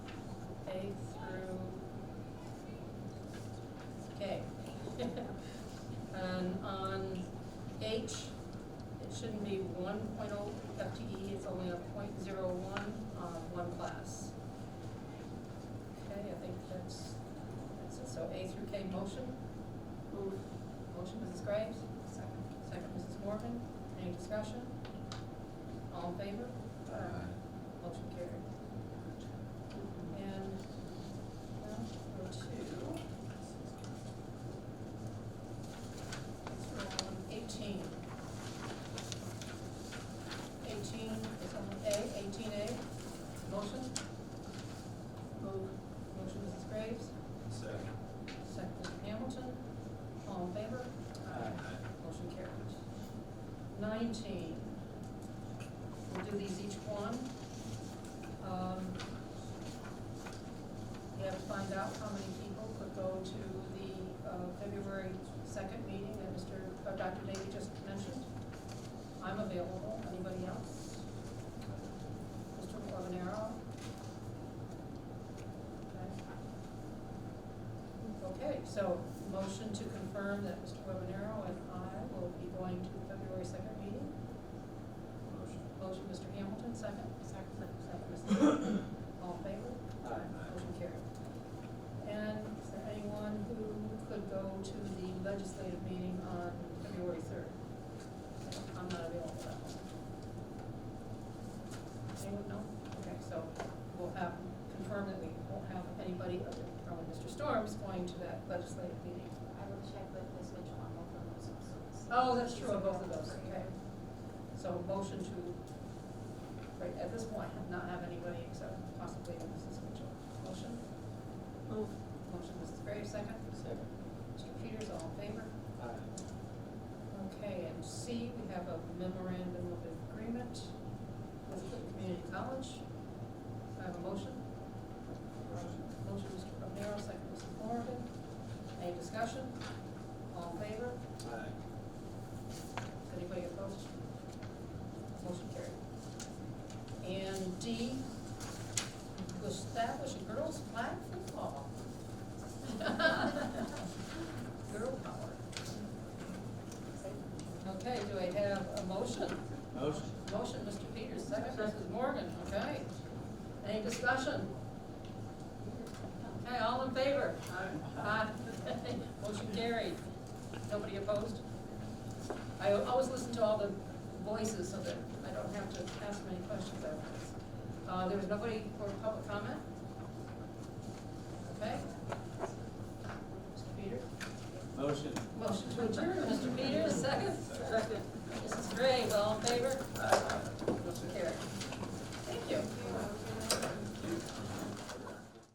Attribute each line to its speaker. Speaker 1: A through K. And on H, it shouldn't be one oh, FTE, E, it's only a point zero one, uh, one class. Okay, I think that's, that's it, so A through K motion,
Speaker 2: Move.
Speaker 1: motion Mrs. Graves, second Mrs. Morgan, any discussion? All in favor? Motion carried. And now go to um, eighteen. Eighteen is on A, eighteen A, motion? Move. Motion Mrs. Graves,
Speaker 3: Second.
Speaker 1: second Mr. Hamilton, all in favor? Motion carries. Nineteen. We'll do these each one. Um, We have to find out how many people could go to the uh, February second meeting that Mr., uh, Dr. Davy just mentioned. I'm available, anybody else? Mr. Webanero? Okay. Okay, so motion to confirm that Mr. Webanero and I will be going to the February second meeting.
Speaker 3: Motion.
Speaker 1: Motion, Mr. Hamilton, second. Second. Second, Mr. Hamilton. All in favor?
Speaker 3: Aye.
Speaker 1: Motion carried. And is there anyone who could go to the legislative meeting on February third? I'm not available for that one. Anyone, no? Okay, so we'll have, confirm that we won't have anybody other than probably Mr. Storm's going to that legislative meeting.
Speaker 2: I will check with Ms. Mitchell on both of those episodes.
Speaker 1: Oh, that's true, of both of those, okay. So motion to, right, at this point, not have anybody except possibly Mrs. Mitchell. Motion?
Speaker 2: Move.
Speaker 1: Motion, Mrs. Graves, second.
Speaker 3: Second.
Speaker 1: Mr. Peters, all in favor?
Speaker 3: Aye.
Speaker 1: Okay, and C, we have a memorandum of agreement with the community college. I have a motion.
Speaker 3: Motion.
Speaker 1: Motion, Mr. Romero, second, Mrs. Morgan. Any discussion? All in favor?
Speaker 3: Aye.
Speaker 1: Anybody opposed? Motion carried. And D, to establish a girls' flag football. Girl power. Okay, do I have a motion?
Speaker 3: Motion.
Speaker 1: Motion, Mr. Peters, second, Mrs. Morgan, okay. Any discussion? Okay, all in favor? Aye. Motion carried. Nobody opposed? I always listen to all the voices so that I don't have to ask many questions afterwards. Uh, there was nobody for public comment?